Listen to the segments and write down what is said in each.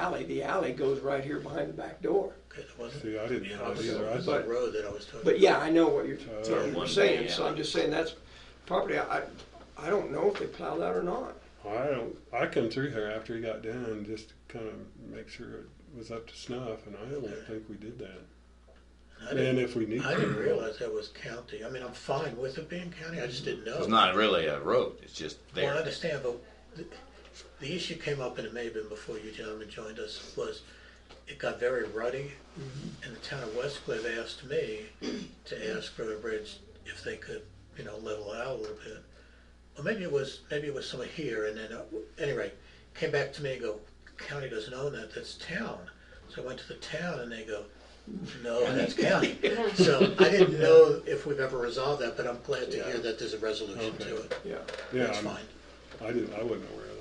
alley, the alley goes right here behind the back door. Okay, it wasn't. See, I didn't Yeah, know it was- either. I It was thought- that road that I was talking. But yeah, I know what you're, Uh, what you're One saying, day so I'm alley. just saying that's property, I, I don't know if they plow that or not. I don't, I come through there after he got done just to kind of make sure it was up to snuff, and I don't think we did that. I And didn't, if we need to. I didn't realize that was county. I mean, I'm fine with it being county. I just didn't know. It's not really a road, it's just Well, I there. understand, but the, the issue came up, and it may have been before you gentlemen joined us, was it got very ruddy, Mm-hmm. and the town of Westcliff asked me to ask for a bridge if they could, you know, level it out a little bit. Or maybe it was, maybe it was somewhere here, and then, uh, anyway, came back to me and go, county doesn't own that, that's town. So I went to the town, and they go, no, that's county. So I didn't know if we've ever resolved that, but I'm glad to hear that there's a resolution to Okay. it. Yeah, Yeah, That's I'm- fine. I didn't, I wasn't aware of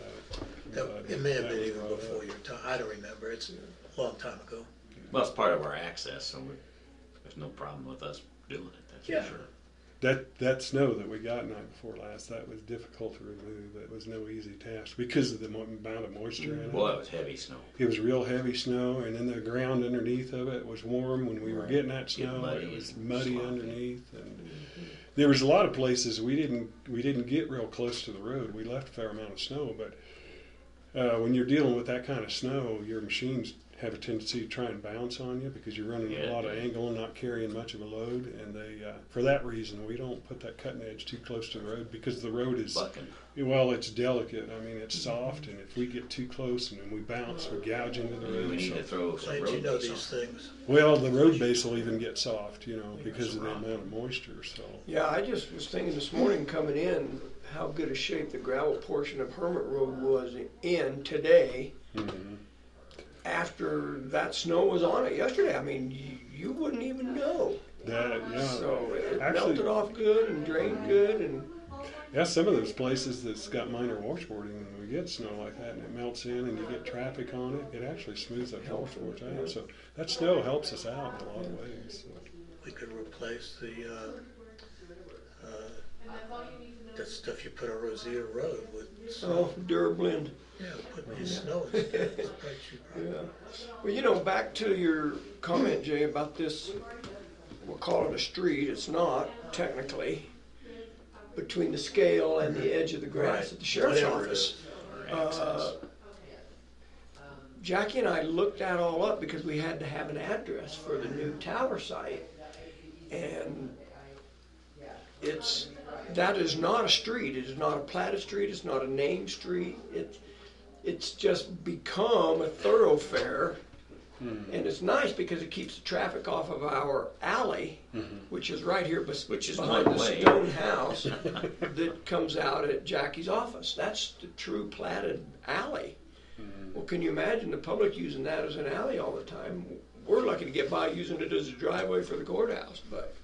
that. That- But It may have that been was even brought up. before your time, I don't remember, it's a long time ago. Well, it's part of our access, so we, there's no problem with us doing it, that's Yeah. for sure. That, that snow that we got night before last, that was difficult to remove. It was no easy task because of the mo- amount of moisture in it. Boy, it was heavy snow. It was real heavy snow, and then the ground underneath of it was warm when we were Right. getting that Get snow. muddy It was and muddy sloppy. Mm-hmm. underneath, and there was a lot of places we didn't we didn't get real close to the road. We left a fair amount of snow, but uh, when you're dealing with that kind of snow, your machines have a tendency to try and bounce on you because you're running Yeah, a lot of yeah. angle and not carrying much of a load. And they, uh, for that reason, we don't put that cutting edge too close to the road because the road is Bucking. well, it's delicate. I mean, it's soft, and if we get too close and then we bounce, we gouge into the We road. need to So, throw some Glad you road know base these on. things. well, the road base will even get soft, you know, because of the Rock. amount of moisture. So, yeah, I just was thinking this morning coming in, how good a shape the gravel portion of Hermit Road was in today mhm. after that snow was on it yesterday. I mean, you, you wouldn't even know. that yeah, Oh, So it Actually- melted off good and drained good and, yeah. Some of those places that's got minor washboarding, when we get snow like that, and it melts in, and you get traffic on it, it actually smooths that whole Helps it, forge yeah. out. So that snow helps us out in a lot of ways. So. We could replace the, uh, uh, that stuff you put on Rosier Road with oh, snow. Durblend. Yeah, put new snow instead, it's probably cheaper. Yeah. Well, you know, back to your comment, Jay, about this, we'll call it a street, it's not technically, between the scale and the edge of the grass Right. at the sheriff's Whatever it office. Uh, or access. Jackie and I looked that all up because we had to have an address for the new tower site. And it's, that is not a street, it is not a platted street, it's not a named street. It, it's just become a thoroughfare. Hmm. And it's nice because it keeps the traffic off of our alley, which is right here bes- Hmm. Which is behind the one way. stone house that comes out at Jackie's office. That's the true platted alley. Hmm. Well, can you imagine the public using that as an alley all the time? We're lucky to get by using it as a driveway for the courthouse, but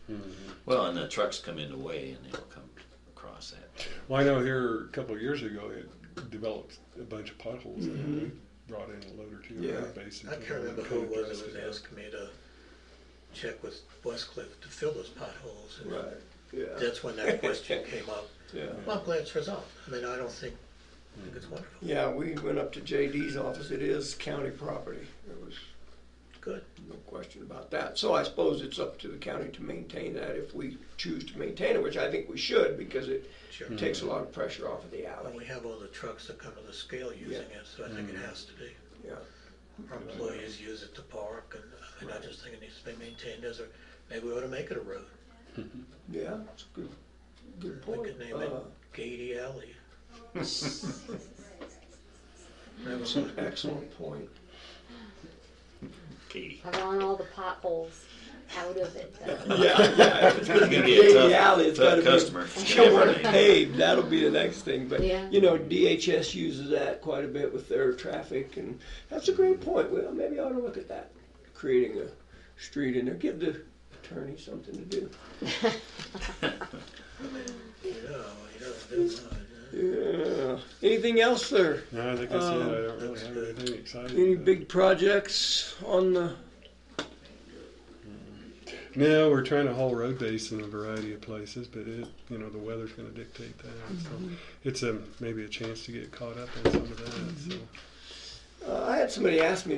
Well, and the trucks come in the way and they'll come across that. Well, I know here a couple of years ago, it developed a bunch of potholes, and we brought in a load or two Yeah. of road base. and I put can't it on remember the who it was that code dress was it up. asking me to check with Westcliff to fill those potholes. and yeah, That's when that question came up. yeah. Well, I'm glad it's resolved. I mean, I don't think, I think it's wonderful. Yeah, we went up to JD's office. It is county property. There was Good. no question about that. So I suppose it's up to the county to maintain that if we choose to maintain it, which I think we should because it Sure. takes a lot of pressure off of the And alley. we have all the trucks that come to the scale using it, so I think it has to be. Yeah. Our employees use it to park, and I mean, I just think it needs to be maintained as a, maybe we ought to make it a road. Yeah, it's a good, good We point. could name it Uh, Gady Alley. That's an Uh, excellent point. Katie. I've gone all the potholes out of it. though. Yeah, yeah. It's gonna be a tough- alley. It's tough gotta be- customer. It's Come gonna be on, everything. paved. That'll be the next thing. But Yeah. you know, DHS uses that quite a bit with their traffic, and that's a great point. Well, maybe I ought to look at that, creating a street in there. Give the attorney something to do. You know, you don't do much, huh? Yeah. Anything else there? No, I think that's Um, Oh, it. I don't really have anything exciting. Any about it. big projects on the? No, we're trying to haul road base in a variety of places, but it, you know, the weather's going to dictate that. So it's a maybe a chance to get caught up on some of that. So. Uh, I had somebody ask me